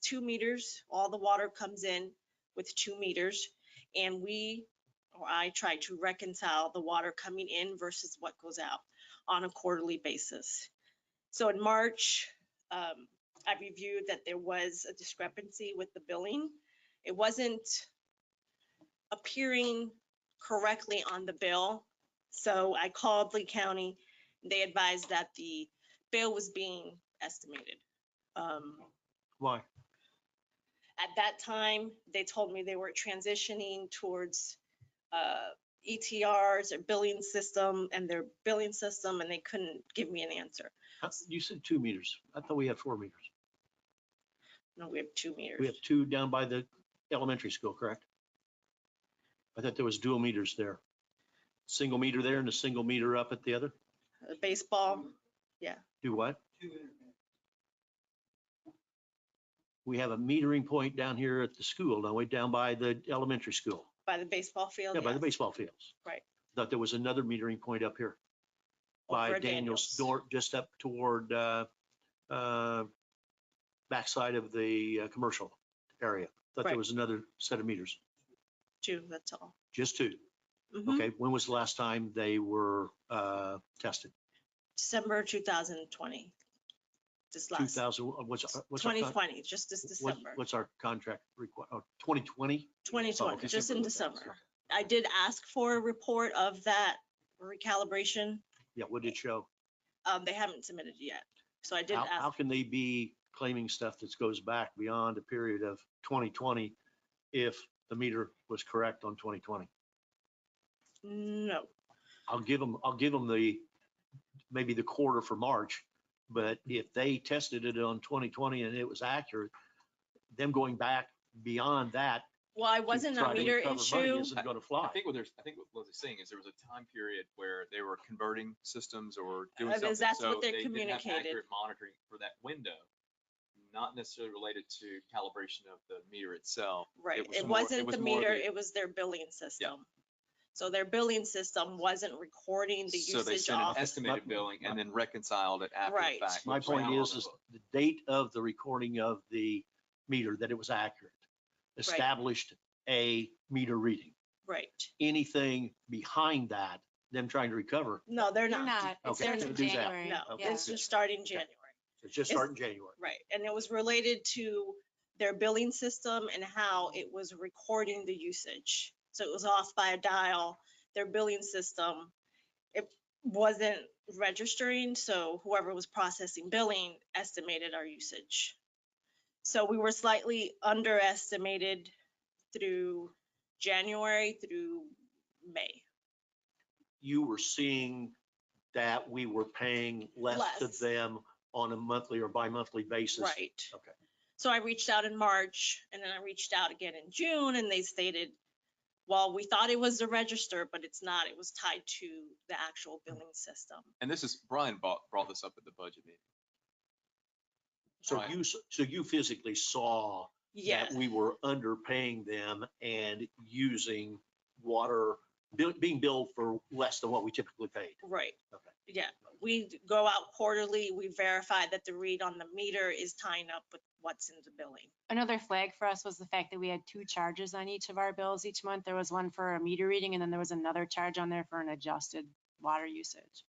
two meters. All the water comes in with two meters. And we, or I try to reconcile the water coming in versus what goes out on a quarterly basis. So in March, um, I reviewed that there was a discrepancy with the billing. It wasn't appearing correctly on the bill. So I called Lee County. They advised that the bill was being estimated. Um, Why? At that time, they told me they were transitioning towards uh, ETRs or billing system and their billing system, and they couldn't give me an answer. Huh? You said two meters. I thought we had four meters. No, we have two meters. We have two down by the elementary school, correct? I thought there was dual meters there. Single meter there and a single meter up at the other? Uh, Baseball, Do what? We have a metering point down here at the school, now way down by the elementary school, by the baseball field. yeah, by the yes. baseball fields. Right. Oh, Thought there was another metering point up here by Over at Daniel's door, just up toward, uh, uh, backside of the, uh, commercial area. Thought Right. there was another set of meters, Two, that's all. just two. Mhm. Okay, when was the last time they were, uh, tested? December 2020, just Two last, thousand, uh, what's, what's our, con- 2020, just this what- December, what's our contract require, oh, twenty twenty? Oh, 2020, okay. just in December. I did ask for a report of that recalibration. Yeah, what did it show? Um, They haven't submitted it yet. So I did How, how ask, can they be claiming stuff that goes back beyond a period of twenty twenty if the meter was correct on twenty twenty? no, I'll give them, I'll give them the, maybe the quarter for March, but if they tested it on twenty twenty and it was accurate, them going back beyond that. well, I to wasn't try a to meter recover money issue. Isn't gonna I fly. think what there's, I think what Lizzie's saying is there was a time period where they were converting systems or doing Uh, something. because that's what so they didn't have communicated. accurate Monitoring for that window, not necessarily related to calibration of the meter itself. Right, was it more- it wasn't was the more meter, the- it was their billing system. So their billing system wasn't recording the So they usage sent an off. estimated billing and then reconciled it after Right. the fact. My which is point not on is, the is book. the date of the recording of the meter, that it was accurate, established a meter reading. Right, Anything behind that, them trying to recover, no, they're They're not, not. It's Okay. starting in Do that. January. no, Okay. Yeah. it's just starting January. it's just It's- starting January. Right, and it was related to their billing system and how it was recording the usage. So it was off by a dial, their billing system, it wasn't registering, so whoever was processing billing estimated our usage. So we were slightly underestimated through January through May. You were seeing that we were paying less to Less. them on a monthly or bi-monthly basis. Right. Okay. So I reached out in March and then I reached out again in June and they stated, well, we thought it was the register, but it's not. It was tied to the actual billing system. And this is, Brian brought, brought this up at the budget meeting. So Right. you, s- so you physically saw Yeah, that we were underpaying them and using water, bill- being billed for less than what we typically paid. right. Okay. Yeah, we d- go out quarterly. We verify that the read on the meter is tying up with what's in the billing. Another flag for us was the fact that we had two charges on each of our bills each month. There was one for a meter reading and then there was another charge on there for an adjusted water usage.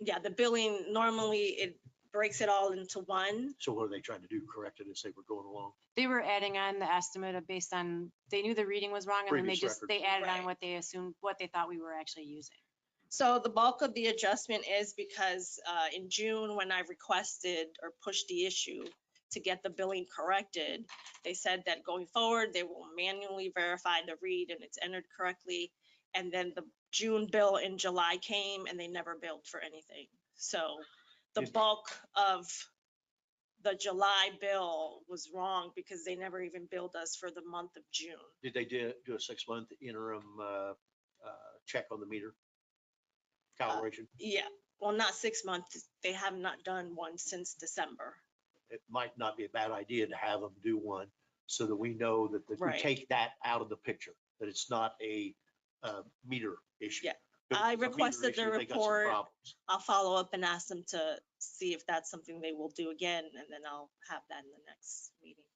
Yeah, the billing, normally it breaks it all into one. So what are they trying to do? Correct it as they were going along? They were adding on the estimate of based on, they knew the reading was wrong and then they Previous just, record. they added Right. on what they assumed, what they thought we were actually using. So the bulk of the adjustment is because uh, in June, when I requested or pushed the issue to get the billing corrected, they said that going forward, they will manually verify the read and it's entered correctly. And then the June bill in July came and they never billed for anything. So the Did- bulk of the July bill was wrong because they never even billed us for the month of June. Did they do, do a six-month interim, uh, uh, check on the meter? Uh, Calibration? Yeah, well, not six months. They have not done one since December. It might not be a bad idea to have them do one so that we know that that we Right. take that out of the picture, that it's not a, uh, meter issue. Yeah. If I it's a meter requested their issue, they got some report. problems. I'll follow up and ask them to see if that's something they will do again, and then I'll have that in the next meeting.